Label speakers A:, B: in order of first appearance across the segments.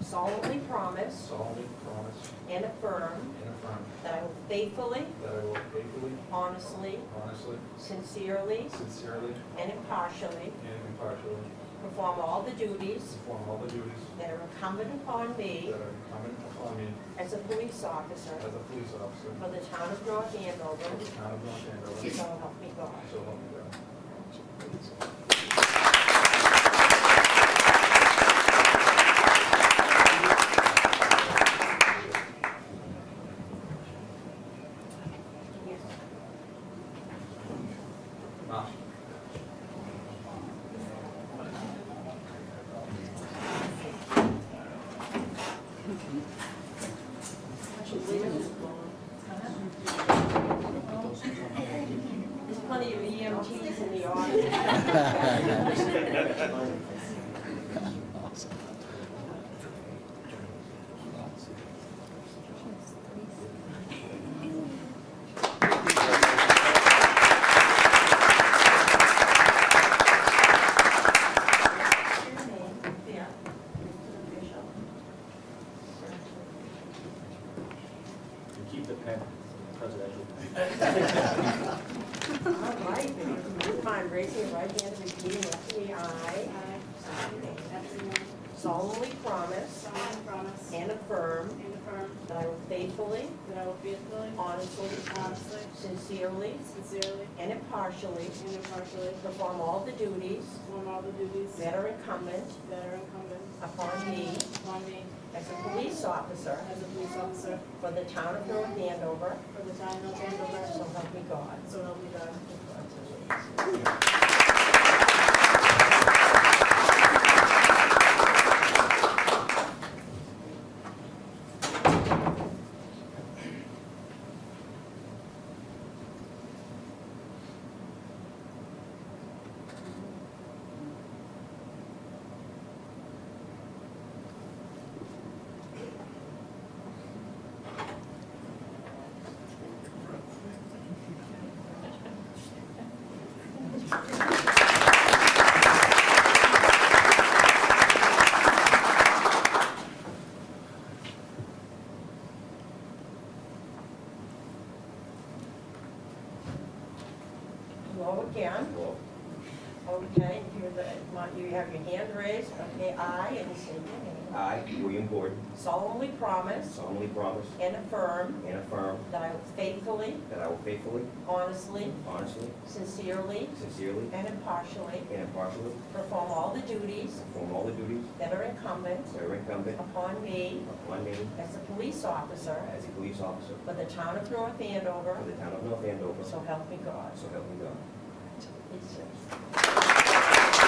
A: solemnly promise
B: solemnly promise
A: and affirm
B: and affirm
A: that I will faithfully,
B: that I will faithfully,
A: honestly,
B: honestly,
A: sincerely,
B: sincerely,
A: and impartially
B: and impartially
A: perform all the duties
B: perform all the duties
A: that are incumbent upon
B: that
A: me
B: are incumbent upon me
A: as a police officer
B: as a police officer
A: for the town of North
B: of
A: Andover,
B: the town of North Andover,
A: so help me God.
B: so help me God.
A: Yes.
B: Ma.
A: There's plenty of EMTs in the audience. Yeah.
C: And keep the pen presidential.
A: All right, if you wouldn't mind raising your right hand and repeating after me, I solemnly promise
D: solemnly promise
A: and affirm
D: and affirm
A: that I will faithfully,
D: that I will faithfully,
A: honestly,
D: honestly,
A: sincerely,
D: sincerely,
A: and impartially
D: and impartially
A: perform all the duties
D: perform all the duties that
A: that are incumbent
D: are incumbent
A: upon me
D: upon me
A: as a police officer
D: as a police officer
A: for the town of North Andover,
D: for the town of
A: so
D: Andover,
A: help me God.
D: so help me God.
A: Hello again. Okay, if you're the, you have your hand raised, okay, I, and say your name.
E: I, William Gordon,
A: solemnly promise
E: solemnly promise
A: and affirm
E: and affirm
A: that I will faithfully,
E: that I will faithfully,
A: honestly,
E: honestly,
A: sincerely,
E: sincerely,
A: and impartially
E: and impartially
A: perform all the duties
E: perform all the duties
A: that are incumbent
E: that are incumbent
A: upon me
E: upon me
A: as a police officer
E: as a police officer
A: for the town of North Andover,
E: for the town of North Andover,
A: so
E: so
A: help me God.
E: help me God.
A: Please uh, sit.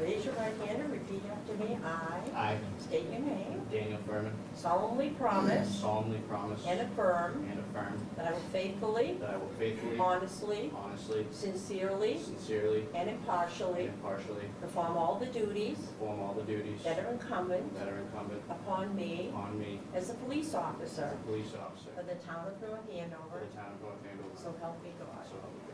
A: Raise your right hand and repeat after me. I
C: I,
A: state your name.
C: Daniel Furman,
A: solemnly promise
C: solemnly promise
A: and affirm
C: and affirm
A: that I will faithfully,
C: that I will faithfully,
A: honestly,
C: honestly,
A: sincerely,
C: sincerely,
A: and
C: and
A: impartially
C: impartially
A: perform all the duties
C: perform all the duties
A: that are incumbent
C: that are incumbent
A: upon me
C: upon me
A: as a police
C: as a
A: officer
C: police officer
A: for the town of North
C: for
A: Andover,
C: the town of North Andover.
A: so help me God.
C: So help me God.